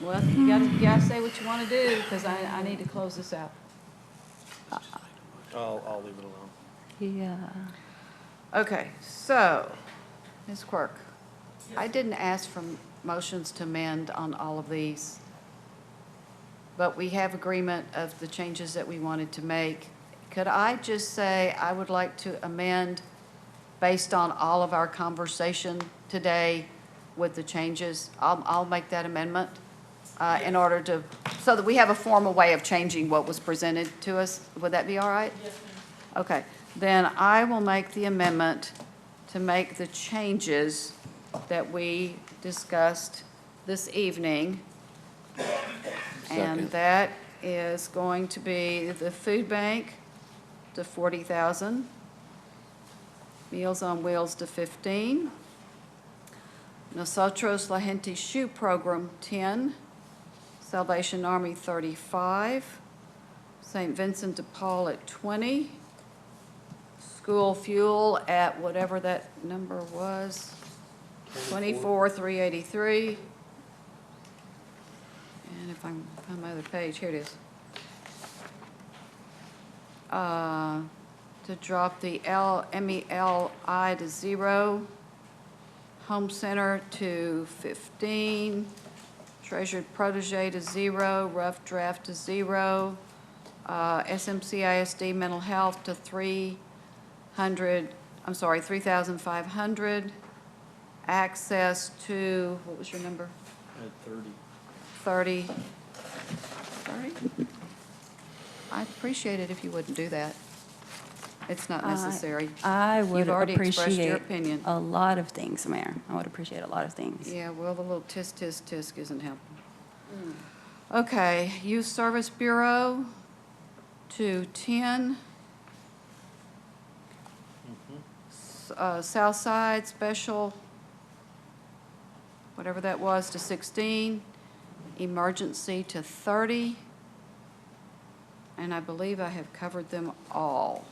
Well, you gotta, you gotta say what you wanna do, because I, I need to close this out. I'll, I'll leave it alone. Yeah. Okay, so, Ms. Quirk, I didn't ask for motions to amend on all of these, but we have agreement of the changes that we wanted to make. Could I just say I would like to amend based on all of our conversation today with the changes? I'll, I'll make that amendment uh, in order to, so that we have a formal way of changing what was presented to us. Would that be all right? Okay, then I will make the amendment to make the changes that we discussed this evening. And Second. that is going to be the food bank to forty thousand, Meals on Wheels to fifteen, Nosotros La Gente Shoe Program ten, Salvation Army thirty-five, St. Vincent de Paul at 20, school fuel at whatever that number was, 24, 383. And if I can find my other page, here it is. Uh, To drop the L, MELI to zero, home center to 15, treasured protege to zero, rough draft to zero, uh, SMCISD mental health to 300, I'm sorry, 3,500, access to, what was your number? At thirty. 30, 30? I'd appreciate it if you wouldn't do that. It's not I- necessary. Uh, I would You've already expressed your appreciate opinion. a lot of things, Mayor. I would appreciate a lot of things. Yeah, well, the little tisk, tisk, tisk isn't helping. Okay, Youth Service Bureau to 10. S- uh, South Side Special, whatever that was, to 16. Emergency to 30. And I believe I have covered them all.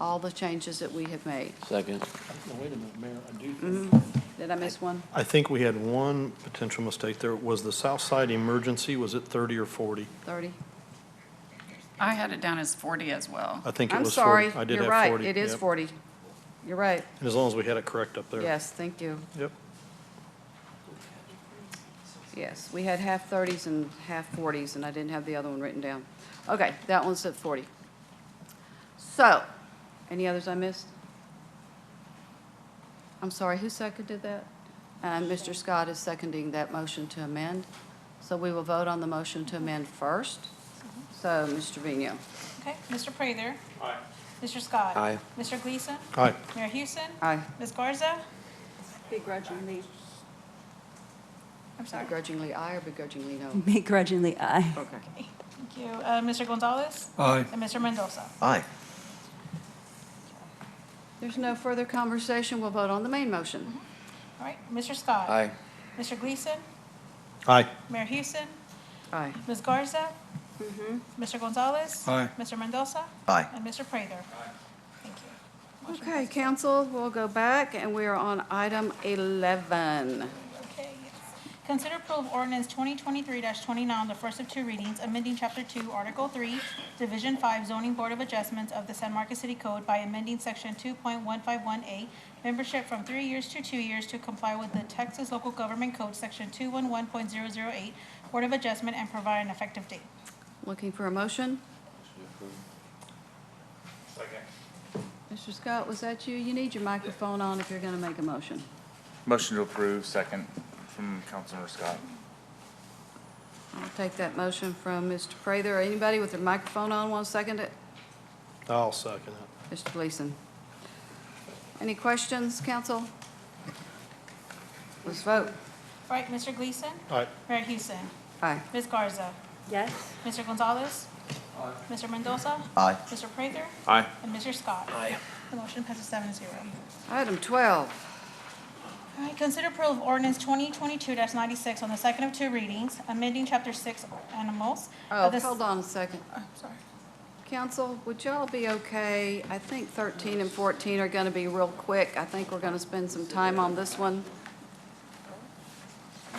All the changes that we have made. Mm-hmm. Second. Wait a minute, Mayor, I do Did I miss one? I think we had one potential mistake there. Was the south side emergency, was it thirty or forty? 30? I had it down as 40 as well. I think it I'm was forty. sorry, I did you're have right, 40, it is yep. 40. You're right, And as long as we had it correct up there. yes, thank you, Yep. yes. We had half 30s and half 40s, and I didn't have the other one written down. Okay, that one's at 40. So, any others I missed? I'm sorry, who seconded that? And Mr. Scott is seconding that motion to amend, so we will vote on the motion to amend first. So, Mr. Trevino? Okay, Mr. Prather. Aye. Mr. Scott. Aye. Mr. Gleason. Aye. Mayor Houston. Aye. Ms. Garza. Begrudgingly. I'm sorry. Begrudgingly aye or begrudgingly no? Begrudgingly, aye. Okay. Okay, Thank you. Uh, Mr. Gonzalez. Aye. And Mr. Mendoza. Aye. There's no further conversation, we'll vote on the main motion. All right, Mr. Scott. Aye. Mr. Gleason. Aye. Mayor Houston. Aye. Ms. Garza. Mr. Gonzalez. Aye. Mr. Mendoza. Aye. And Mr. Prather. Aye. Thank you. Motion Okay, council, we'll go back, and we are on item 11. Okay, yes. Consider approve ordinance twenty twenty-three twenty-nine, the first of two readings, amending chapter two, article three, division five, zoning board of adjustments of the San Marcos City Code by amending section two point one five one A, membership from three years to two years to comply with the Texas Local Government Code, section two one one point zero zero eight, board of adjustment, and provide an effective date. Looking for a motion? Mr. Scott, was that you? You need your microphone on if you're going to make a motion. Motion to approve, second from Councilmember Scott. I'll take that motion from Mr. Prather. Anybody with their microphone on want to second it? I'll second it. Mr. Gleason. Any questions, council? Let's vote. All right, Mr. Gleason? Aye. Mayor Houston? Aye. Ms. Garza? Yes. Mr. Gonzalez? Mr. Mendoza? Aye. Mr. Prather? Aye. And Mr. Scott? Aye. The motion passes seven zero. Item 12. All right, consider approval of ordinance twenty twenty-two ninety-six on the second of two readings, amending chapter six animals. Oh, of the s- hold on a second. I'm sorry. Council, would y'all be okay? I think 13 and 14 are going to be real quick. I think we're going to spend some time on this one.